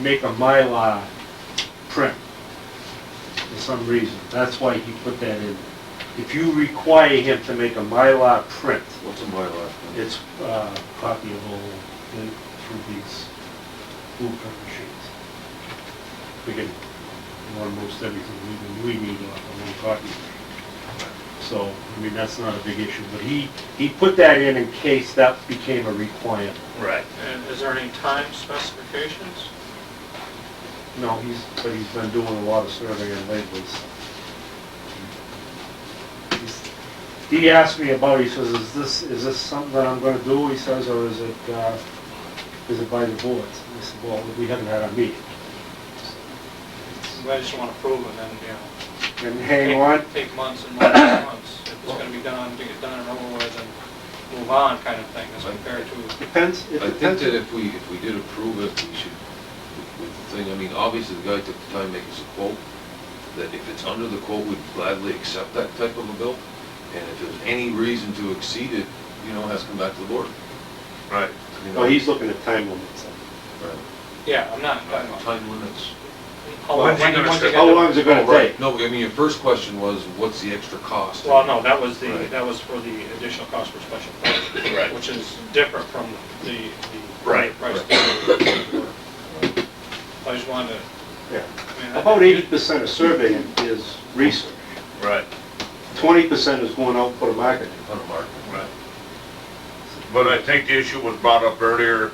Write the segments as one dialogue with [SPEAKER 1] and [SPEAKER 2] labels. [SPEAKER 1] make a Mylar print for some reason. That's why he put that in. If you require him to make a Mylar print,
[SPEAKER 2] What's in my life?
[SPEAKER 1] it's uh, a copy of all the, from these blueprint machines. We can, almost everything we, we need on one copy. So, I mean, that's not a big issue, but he, he put that in in case that became a requirement.
[SPEAKER 2] Right.
[SPEAKER 3] And is there any time specifications?
[SPEAKER 1] No, he's, but he's been doing a lot of surveying lately, so. He's- He asked me about, it, he says, is this, is this something that I'm gonna do, he says, or is it, uh, is it by the board? I said, well, we haven't had a meeting.
[SPEAKER 3] I just want to prove it and, you know.
[SPEAKER 1] And hang on,
[SPEAKER 3] take- Take months and months and months. If it's going to be done, to get done and over with and move on kind of thing as compared to,
[SPEAKER 1] depends, it
[SPEAKER 2] I think
[SPEAKER 1] depends.
[SPEAKER 2] that if we, if we did approve it, we should, with the thing, I mean, obviously, the guy took the time to make us a quote, that if it's under the quote, we'd gladly accept that type of a bill, and if there's any reason to exceed it, you know, it has to come back to the board.
[SPEAKER 4] Right.
[SPEAKER 2] You know?
[SPEAKER 1] Well, Oh, he's looking at time limits.
[SPEAKER 2] Right.
[SPEAKER 3] yeah, I'm not talking about.
[SPEAKER 2] Time limits.
[SPEAKER 3] How long-
[SPEAKER 4] When's he gonna
[SPEAKER 3] once
[SPEAKER 4] say-
[SPEAKER 3] you get
[SPEAKER 1] How
[SPEAKER 3] the-
[SPEAKER 1] long is it gonna
[SPEAKER 2] Oh, right.
[SPEAKER 1] take?
[SPEAKER 2] No, I mean, your first question was, what's the extra cost?
[SPEAKER 3] Well, no, that was the,
[SPEAKER 2] Right.
[SPEAKER 3] that was for the additional cost for special permit.
[SPEAKER 4] Right.
[SPEAKER 3] Which is different from the, the.
[SPEAKER 4] Right.
[SPEAKER 3] price I just wanted to,
[SPEAKER 1] Yeah.
[SPEAKER 3] I mean. I-
[SPEAKER 1] About eighty percent of surveying is research.
[SPEAKER 4] Right,
[SPEAKER 1] Twenty percent is going out for the marketing.
[SPEAKER 2] On a mark.
[SPEAKER 4] right. But I think the issue was brought up earlier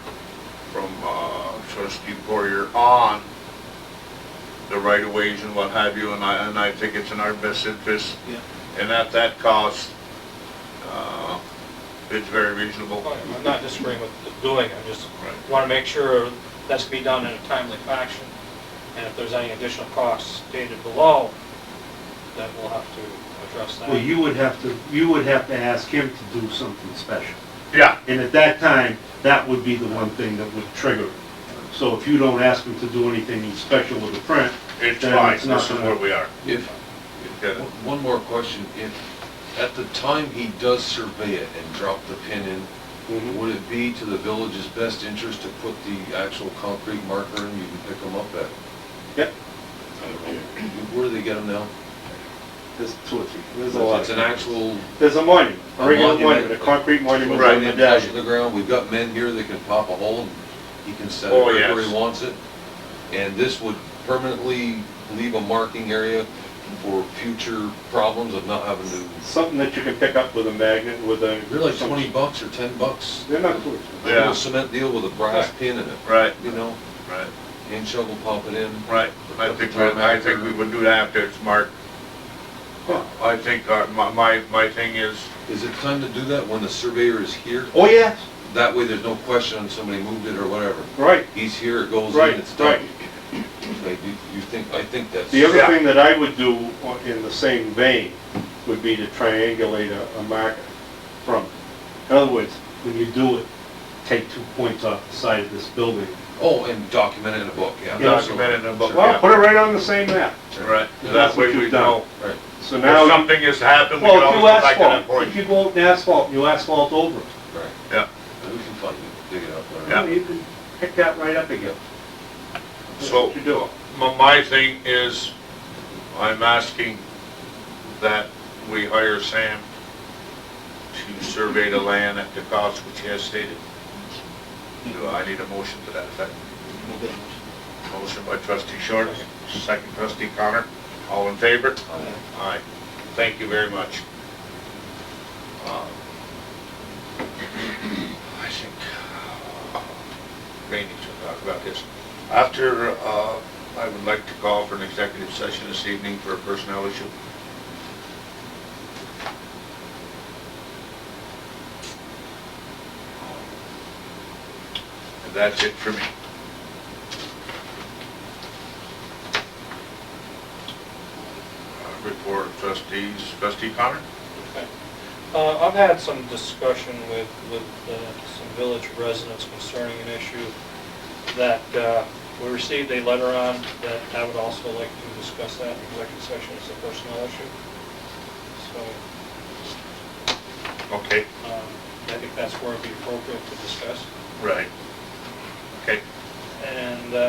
[SPEAKER 4] from uh, trustee Poirier on the right of ways and what have you, and I, and I think it's in our best interest.
[SPEAKER 3] Yeah.
[SPEAKER 4] And at that cost, uh, it's very reasonable.
[SPEAKER 3] I'm not disagreeing with doing it, I just
[SPEAKER 4] Right.
[SPEAKER 3] want to make sure that's be done in a timely fashion. And if there's any additional costs stated below, then we'll have to address that.
[SPEAKER 1] Well, you would have to, you would have to ask him to do something special.
[SPEAKER 4] Yeah,
[SPEAKER 1] And at that time, that would be the one thing that would trigger it. So if you don't ask him to do anything special with the print,
[SPEAKER 4] it's
[SPEAKER 1] Then
[SPEAKER 4] fine,
[SPEAKER 1] it's not
[SPEAKER 4] this is
[SPEAKER 1] gonna-
[SPEAKER 4] where we are.
[SPEAKER 2] If,
[SPEAKER 4] Okay.
[SPEAKER 2] One more question, if, at the time he does survey it and drop the pin in,
[SPEAKER 1] Mhm.
[SPEAKER 2] would it be to the village's best interest to put the actual concrete marker in, you can pick them up at?
[SPEAKER 1] Yep.
[SPEAKER 2] Where do they get them now?
[SPEAKER 1] there's two or three, there's a lot.
[SPEAKER 2] It's an actual
[SPEAKER 1] There's a monument, a
[SPEAKER 2] A
[SPEAKER 1] regular
[SPEAKER 2] monument.
[SPEAKER 1] monument, a concrete monument
[SPEAKER 4] Right,
[SPEAKER 1] on
[SPEAKER 2] right
[SPEAKER 1] the
[SPEAKER 2] in flush of
[SPEAKER 1] deck.
[SPEAKER 2] the ground, we've got men here that can pop a hole, and he can set it
[SPEAKER 4] Oh,
[SPEAKER 2] right where
[SPEAKER 4] yes.
[SPEAKER 2] he wants it. And this would permanently leave a marking area for future problems of not having to,
[SPEAKER 1] Something that you can pick up with a magnet, with a.
[SPEAKER 2] they're like twenty bucks or ten bucks.
[SPEAKER 1] They're not too
[SPEAKER 2] A
[SPEAKER 4] Yeah.
[SPEAKER 2] little cement deal with a brass pin in it.
[SPEAKER 4] Right,
[SPEAKER 2] you know,
[SPEAKER 4] right,
[SPEAKER 2] hand shovel, pop it in.
[SPEAKER 4] right. I think, we- I think we would do that after it's marked.
[SPEAKER 1] Yeah.
[SPEAKER 4] I think uh, my, my, my thing is,
[SPEAKER 2] Is it time to do that when the surveyor is here?
[SPEAKER 1] Oh, yeah,
[SPEAKER 2] That way there's no question on somebody moved it or whatever.
[SPEAKER 1] right.
[SPEAKER 2] He's here, it goes
[SPEAKER 1] Right,
[SPEAKER 2] in, it's done. Like, you, you think, I think that's.
[SPEAKER 1] The other
[SPEAKER 4] Yeah.
[SPEAKER 1] thing that I would do o- in the same vein would be to triangulate a, a marker from. In other words, when you do it, take two points off the side of this building.
[SPEAKER 2] Oh, and document it in a book, yeah.
[SPEAKER 1] Yeah.
[SPEAKER 4] Document it in a book.
[SPEAKER 1] Well, put it right on the same map.
[SPEAKER 4] right,
[SPEAKER 1] Yeah,
[SPEAKER 4] that
[SPEAKER 1] that's
[SPEAKER 4] way
[SPEAKER 1] what
[SPEAKER 4] we
[SPEAKER 1] you've done.
[SPEAKER 4] know.
[SPEAKER 2] Right.
[SPEAKER 1] So
[SPEAKER 4] If
[SPEAKER 1] now,
[SPEAKER 4] something has happened, we
[SPEAKER 1] well,
[SPEAKER 4] can
[SPEAKER 1] if
[SPEAKER 4] always
[SPEAKER 1] you
[SPEAKER 4] go back to that
[SPEAKER 1] asphalt,
[SPEAKER 4] point.
[SPEAKER 1] if you go out and asphalt, you asphalt over it.
[SPEAKER 2] Right,
[SPEAKER 4] Yeah,
[SPEAKER 2] we can find it, dig it up. whatever.
[SPEAKER 4] Yeah.
[SPEAKER 1] You can pick that right up again. That's
[SPEAKER 4] So-
[SPEAKER 1] what you do.
[SPEAKER 4] my, my thing is, I'm asking that we hire Sam to survey the land at the cost which he has stated. Do I need a motion to that effect? Motion by trustee Short, second trustee Connor, all in favor?
[SPEAKER 2] Aye.
[SPEAKER 4] Aye. Thank you very much. Uh, I think, Rainey should talk uh, about this. After, uh, I would like to call for an executive session this evening for a personnel issue. And that's it for me. Uh, Report of trustees, trustee Connor?
[SPEAKER 3] Uh, I've had some discussion with, with uh, some village residents concerning an issue that uh, we received a letter on, that I would also like to discuss that in executive session as a personnel issue. So
[SPEAKER 4] Okay,
[SPEAKER 3] um, I think that's where it'd be appropriate to discuss.
[SPEAKER 4] right. Okay.
[SPEAKER 3] And uh,